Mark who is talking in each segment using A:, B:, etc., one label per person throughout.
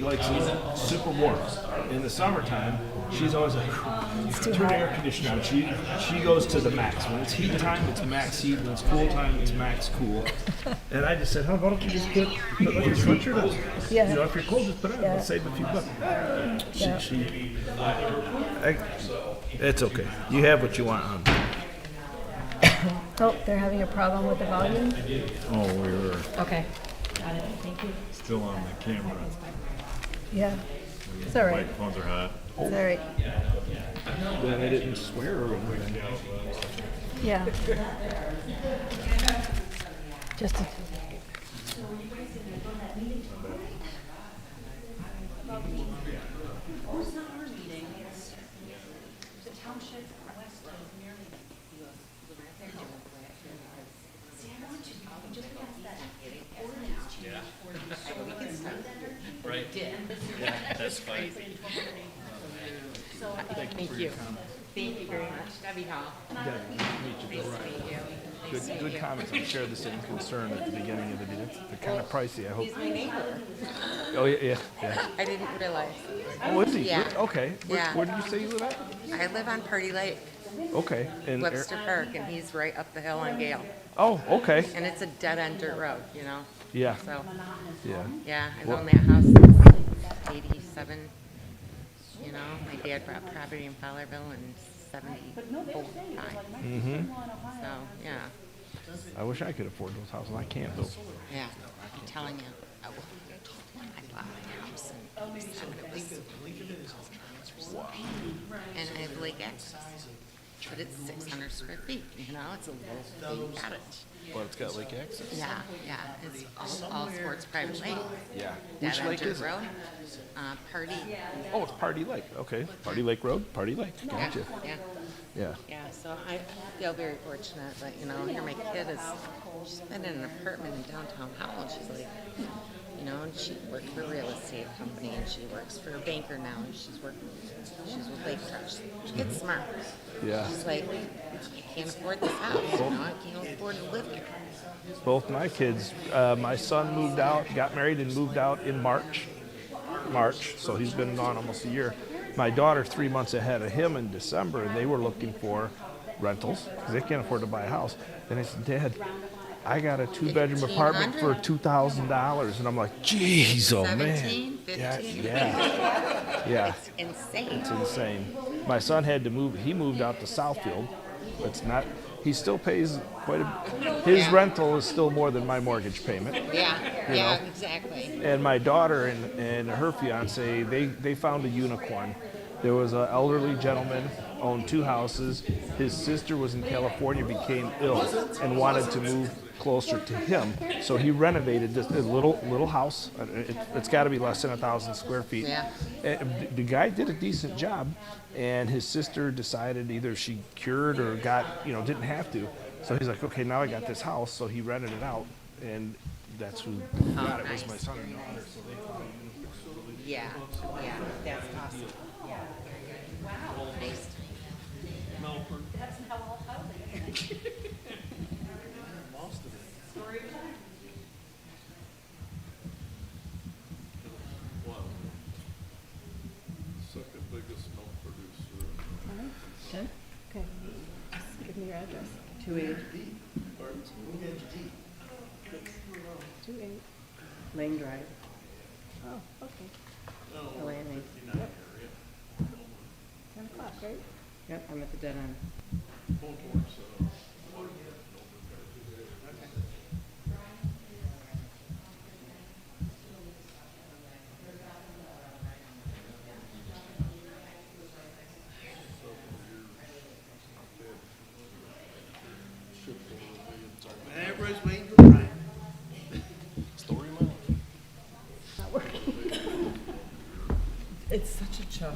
A: He likes it super warm. In the summertime, she's always like, turn the air conditioner on. She she goes to the max. When it's heat time, it's max heat. When it's cool time, it's max cool. And I just said, huh, why don't you just put, put like your sweatshirt on?
B: Yeah.
A: You know, if you're cold, just put it on.
B: Yeah.
A: Let's save a few bucks. She,
B: Yeah.
A: she, I, it's okay. You have what you want on.
B: Oh, they're having a problem with the volume?
C: Oh, we were
B: Okay. Got it, thank you.
C: still on the camera.
B: Yeah. It's all right,
C: Microphones are hot.
B: it's all right.
A: Then I didn't swear or anything.
B: Yeah. Just a,
D: Thank you. Thank you very much. Debbie Hall.
A: Good, good comments. I share the same concern at the beginning of the deal. They're kind of pricey. I hope.
D: He's my neighbor.
A: Oh yeah, yeah, yeah.
D: I didn't realize.
A: Oh, is he?
D: Yeah.
A: Where- Okay. Where,
D: Yeah.
A: where did you say you live at?
D: I live on Party Lake,
A: Okay. In Ar-
D: Webster Park, and he's right up the hill on Gale.
A: oh, okay.
D: And it's a dead end dirt road, you know?
A: Yeah.
D: So,
A: Yeah.
D: yeah, I've
A: Well-
D: owned that house since eighty-seven. You know, my dad bought property in Fowlerville in seventy-four,
A: Mm-hmm.
D: So, yeah,
A: I wish I could afford those houses. I can't though.
D: yeah, I'm telling you. I will- I bought my house in seventy-seven. and I have lake access. But it's six hundred square feet, you know, it's a little thing cottage.
A: Well, it's got lake access.
D: Yeah, yeah, it's all, all sports private lake.
A: Yeah.
D: That
A: Which
D: on
A: lake
D: dirt
A: is it?
D: road, uh, party.
A: Oh, it's Party Lake. Okay. Party Lake Road. Party Lake.
D: Yeah,
A: Gotcha.
D: yeah,
A: Yeah.
D: yeah, so I feel very fortunate that, you know, here my kid is, she's been in an apartment in downtown Howell, she's like, you know, and she worked for a real estate company, and she works for a banker now, and she's working, she's with Lake Trust. She gets smart.
A: Mm-hmm. Yeah.
D: She's like, I can't afford this house, you know, I can't afford to live here.
A: Both my kids. Uh, my son moved out, got married, and moved out in March. March. So he's been gone almost a year. My daughter three months ahead of him in December, and they were looking for rentals because they can't afford to buy a house. And I said, Dad, I got a two-bedroom apartment for two thousand dollars, and I'm like, Jeez, oh man,
D: Seventeen,
A: yeah,
D: fifteen.
A: yeah, yeah.
D: Insane.
A: Ah. It's insane. My son had to move. He moved out to Southfield. It's not. He still pays quite a. His
D: Yeah.
A: rental is still more than my mortgage payment.
D: Yeah, yeah, exactly.
A: And my daughter and, and her fiance, they, they found a unicorn. There was an elderly gentleman owned two houses. His sister was in California, became ill, and wanted to move closer to him. So he renovated this this little little house. Uh, It, has got to be less than a thousand square feet.
D: Yeah.
A: And th- the guy did a decent job, and his sister decided either she cured or got you know didn't have to. So he's like, okay, now I got this house. So he rented it out, and that's who
D: Oh,
A: got it was
D: nice.
A: my son and daughter.
D: Yeah, yeah, that's awesome. Wow. Nice.
E: second biggest milk producer.
B: okay, Just give me your address.
F: Two eight,
B: Two eight,
F: Lane Drive,
B: oh, okay,
F: Atlanta.
B: ten o'clock, right?
F: Yep, I'm at the dead end.
E: Everybody's waiting for Brian.
F: It's such a joke.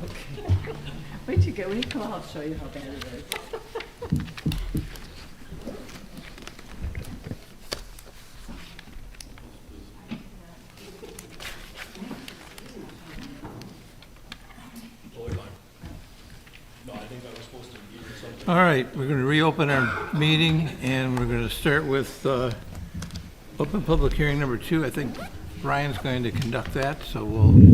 F: Wait till you get, when you come out, I'll show you how bad it is.
G: All right, we're going to reopen our meeting, and we're going to start with uh, open public hearing number two. I think Brian's going to conduct that, so we'll